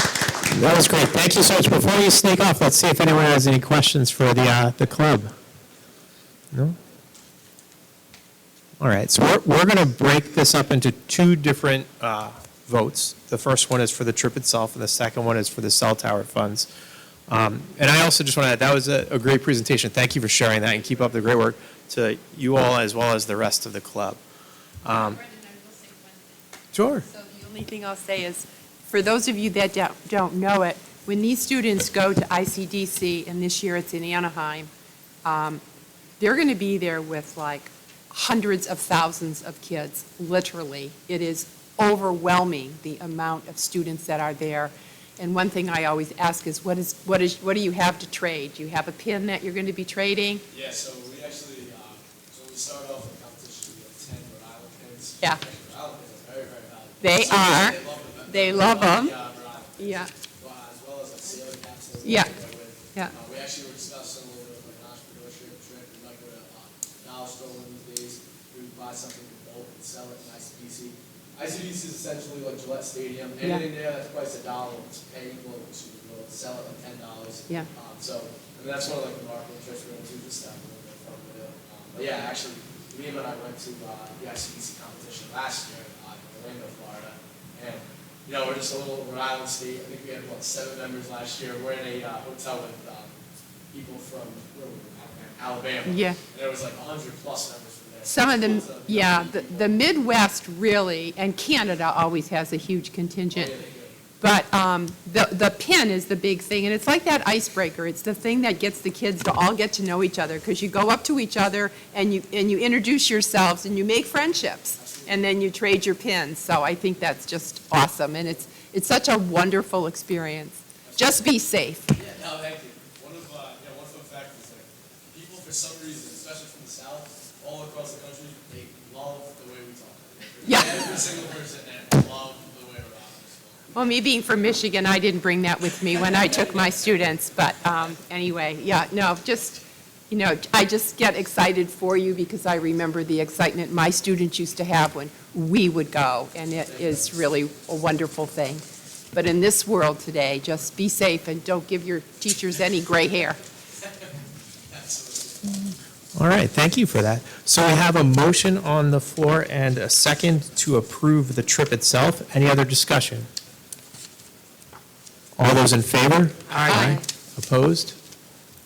That was great. Thank you so much. Before you sneak off, let's see if anyone has any questions for the, uh, the club. No? All right, so we're, we're going to break this up into two different uh, votes. The first one is for the trip itself, and the second one is for the cell tower funds. Um, And I also just want to add, that was a, a great presentation. Thank you for sharing that, and keep up the great work to you all as well as the rest of the club. Brendan, I will say one Sure. thing. So the only thing I'll say is, for those of you that don't- don't know it, when these students go to ICDC, and this year it's in Anaheim, um, they're going to be there with like hundreds of thousands of kids, literally. It is overwhelming, the amount of students that are there. And one thing I always ask is, what is, what is, what do you have to trade? Do you have a pin that you're going to be trading? Yeah, so we actually, um, so we started off with a competition, we had ten Rhode Island pins. Yeah. Rhode Island pins are very, very valuable. They are. They love They love them. them. Yeah, Rhode Island pins. Yeah. Well, As well as the sailing caps. that we Yeah. work with. Yeah. Uh, We actually were discussing a little bit of like an entrepreneurship trip, we might go to, uh, Milestone one of these days, we would buy something in bulk and sell it in ICBC. ICBC is essentially like Gillette Stadium, Yeah. anything there that's priced a dollar, it's paying locals, you can go and sell it at ten dollars. Yeah. Um, So, I mean, that's one of like the marketing tricks we're gonna do this time, we're gonna go from the, um, but yeah, actually, Liam and I went to, uh, the ICBC competition last year, uh, in Orlando, Florida, and, you know, we're just a little Rhode Island state, I think we had about seven members last year, we're in a, uh, hotel with, um, people from, where were we, Alabama. Yeah. And there was like a hundred plus members from there. Some of them, Tons yeah, the- people. the Midwest really, and Canada always has a huge contingent. Oh, Yeah, they do. But um, the, the pin is the big thing, and it's like that icebreaker. It's the thing that gets the kids to all get to know each other, because you go up to each other and you, and you introduce yourselves and you make friendships, and then you trade your pins. So I think that's just awesome, and it's, it's such a wonderful experience. Just be safe. Yeah, no, thank you. One of, uh, yeah, one fun fact is like, people for some reason, especially from the south, all across the country, they love the way we talk. Yeah. Every single person there loves the way we're talking. Well, me being from Michigan, I didn't bring that with me when I took my students, but um, anyway, yeah, no, just, you know, I just get excited for you because I remember the excitement my students used to have when we would go, and it is really a wonderful thing. But in this world today, just be safe and don't give your teachers any gray hair. All right, thank you for that. So we have a motion on the floor and a second to approve the trip itself. Any other discussion? All those in favor? Aye. Aye. Opposed?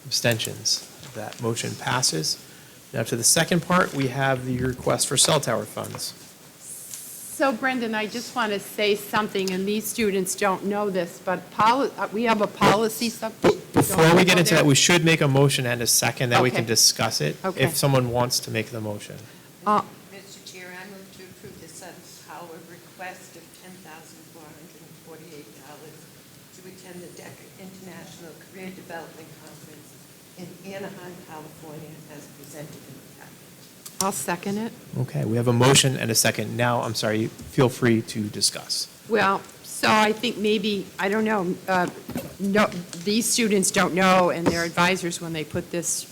Abstentions? That motion passes. Now to the second part, we have the request for cell tower funds. So Brendan, I just want to say something, and these students don't know this, but poli- uh, we have a policy sub. Before we get into that, Don't- we should make a motion and a second, that we can Okay. discuss it, Okay. if someone wants to make the motion. Mr. Chair, I move to approve the Suns Power request of ten thousand four hundred and forty-eight dollars to attend the DECA International Career Development Conference in Anaheim, California, as presented in the packet. I'll second it. Okay, we have a motion and a second. Now, I'm sorry, feel free to discuss. Well, so I think maybe, I don't know, uh, no, these students don't know, and their advisors, when they put this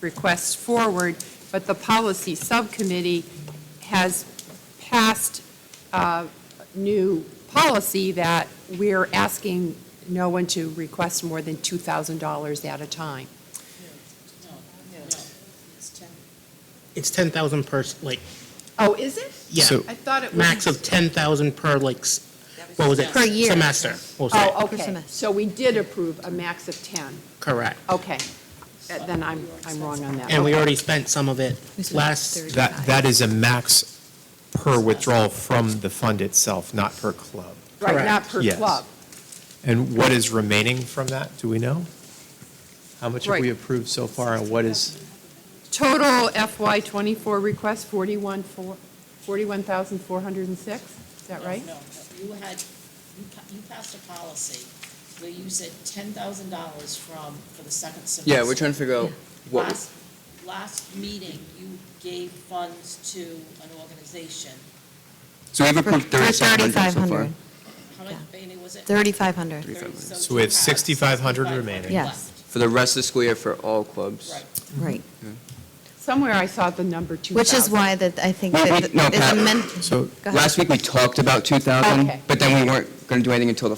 request forward, but the policy subcommittee has passed a new policy that we're asking no one to request more than $2,000 at a time. No, no, it's 10. It's 10,000 per, s- like, Oh, is it? yeah, So- I thought it was. max of 10,000 per, like, s- what was it? Per year. Semester, we'll say. Oh, okay. So we did approve a max of 10. oh. Correct. Okay. Uh, Then I'm, I'm wrong on that. And we Okay. already spent some of it We spent last, 30. That, that is a max per withdrawal from the fund itself, not per club. Right, not Correct. per Yes. club. And what is remaining from that, do we know? How much have we Right. approved so far, and what is, Total FY '24 request, 41, four- 41,406, is that right? No, no, you had, you pa- you passed a policy where you said ten thousand dollars from, for the second semester. Yeah, we're trying to figure out what, Last, last meeting, you gave funds to an organization. so we've approved For- for thirty-seven hundred so far. 3,500. How much, Bailey, was it? 3,500. Thirty, So we have you 6,500 remaining. Yes. left. For the rest of the school year for all clubs. Right. Right. Somewhere I saw the number 2,000. Which is why that I think Well, that we- no, it's Pat, amend. So Go ahead. last week we talked about two thousand, Okay. but then we weren't gonna do anything until the